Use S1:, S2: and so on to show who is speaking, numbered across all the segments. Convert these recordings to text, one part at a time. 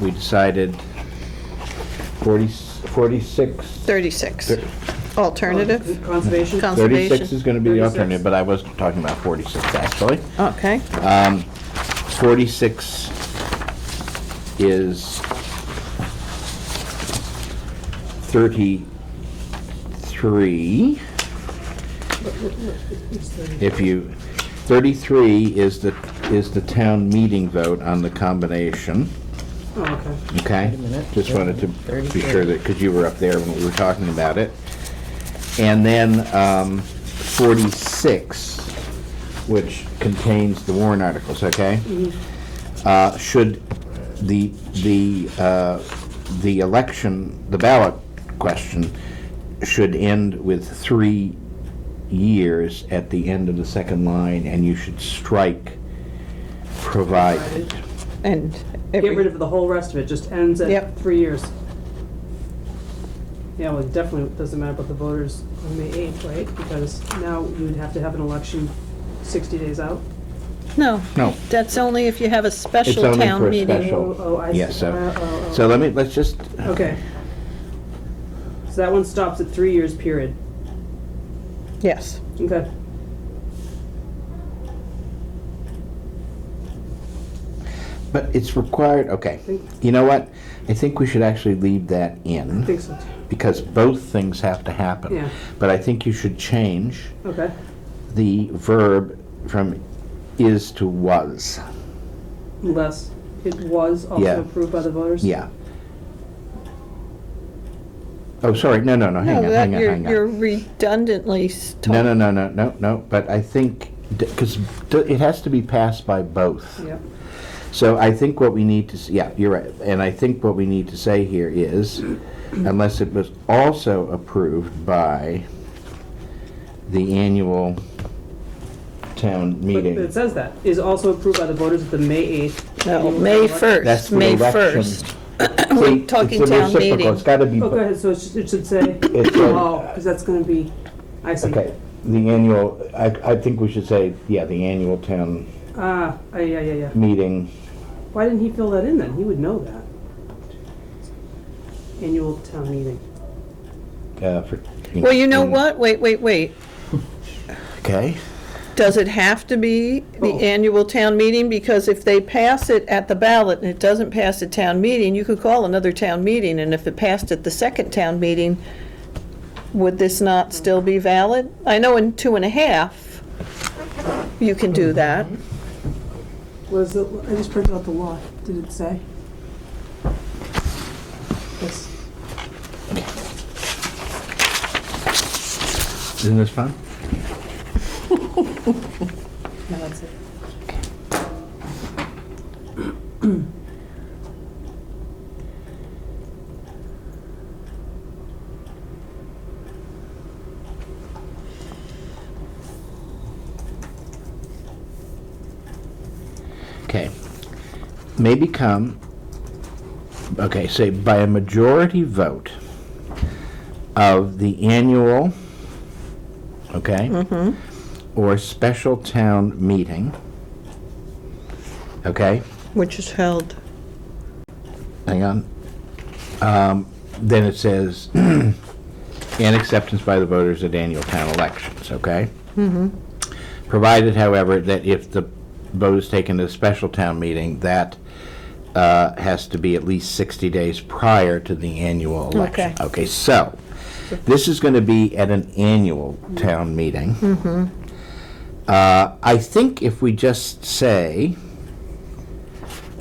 S1: we decided 40 46,
S2: 36.
S1: Thir-
S2: Alternative?
S3: Conservation?
S2: Conservation.
S1: 36 is going to be the
S3: 36.
S1: alternative, but I was talking about 46, actually.
S2: Okay.
S1: 46 is 33.
S3: Oh,
S1: If you, 33 is the, is the town meeting vote on the combination,
S3: Oh, okay.
S1: okay?
S4: Wait a minute.
S1: Just wanted to be
S4: 33.
S1: sure that, because you were up there when we were talking about it. And then um, 46, which contains the warrant articles, okay?
S4: Mm-hmm.
S1: Uh, Should the, the, uh, the election, the ballot question should end with three years at the end of the second line, and you should strike provided.
S2: And
S3: Get rid
S2: every,
S3: of the whole rest of it, just ends at
S2: Yep.
S3: three years. Yeah, well, it definitely doesn't matter about the voters on May 8th, right? Because now you'd have to have an election 60 days out.
S2: no,
S1: No,
S2: that's only if you have a
S1: it's
S2: special
S1: only for
S2: town
S1: a
S2: meeting.
S1: special.
S3: Oh, oh, I see.
S1: Yeah, so,
S3: Oh, oh, oh.
S1: so let me, let's just,
S3: Okay. So that one stops at three years, period.
S2: Yes.
S3: Okay.
S1: but it's required, okay.
S3: Think-
S1: You know what? I think we should actually leave that
S3: I think
S1: in,
S3: so, too.
S1: because both things have to happen.
S3: Yeah.
S1: But I think you should change
S3: Okay.
S1: the verb from is to was.
S3: Unless it was
S1: Yeah.
S3: also approved by the voters?
S1: Yeah. Oh, sorry, no, no, no,
S2: No,
S1: hang on,
S2: that,
S1: hang on,
S2: you're
S1: hang on.
S2: you're redundantly s-
S1: No,
S2: told.
S1: no, no, no, no, no, but I think, because it has to be passed by both.
S3: Yep.
S1: So I think what we need to, s- yeah, you're right, and I think what we need to say here is, unless it was also approved by the annual town
S3: But it
S1: meeting.
S3: says that, is also approved by the voters at the May 8th.
S2: No,
S3: annual
S2: May
S3: election.
S2: 1st, May 1st.
S1: We're
S2: talking town meeting.
S1: It's gotta be,
S3: Oh, go ahead, so it should- it should say,
S1: It's, uh,
S3: oh, because that's gonna be, I see.
S1: okay, the annual, I, I think we should say, yeah, the annual town
S3: Ah, ah, yeah, yeah, yeah.
S1: meeting.
S3: Why didn't he fill that in then? He would know that. Annual town meeting.
S1: uh, for-
S2: Well, you know what? Wait, wait, wait.
S1: Okay.
S2: Does it have to be the
S3: Oh.
S2: annual town meeting? Because if they pass it at the ballot and it doesn't pass at town meeting, you could call another town meeting, and if it passed at the second town meeting, would this not still be valid? I know in two and a half, you can do that.
S3: Was it, I just printed out the law. Did it say? Yes.
S1: Isn't this fun?
S3: No, that's it.
S1: Okay. May become, okay, say by a majority vote of the annual, okay? Or special town meeting, okay?
S2: Which is held.
S1: Hang on. Um, Then it says, and acceptance by the voters at annual town elections, okay? Provided, however, that if the vote is taken at a special town meeting, that uh, has to be at least 60 days prior to the annual election.
S2: Okay.
S1: Okay, so, this is going to be at an annual town meeting. Uh, I think if we just say,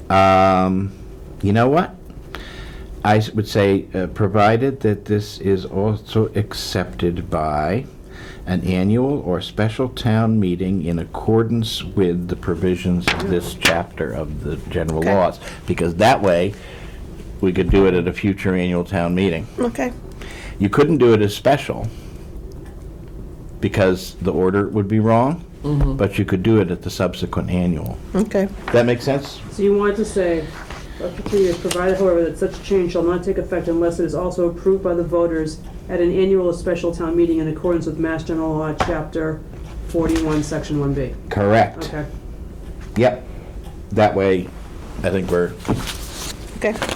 S1: um, you know what? I s- would say, uh, provided that this is also accepted by an annual or special town meeting in accordance with the provisions of this chapter of the general
S2: Okay.
S1: laws. Because that way, we could do it at a future annual town meeting.
S2: Okay.
S1: You couldn't do it as special because the order would be wrong, but you could do it at the subsequent annual.
S2: Okay.
S1: That makes sense?
S3: So you wanted to say, up to three years, provided however that such change shall not take effect unless it is also approved by the voters at an annual or special town meeting in accordance with Mass General Law, Chapter forty-one, Section one B.
S1: Correct.
S3: Okay,
S1: Yep. That way, I think we're
S2: Okay.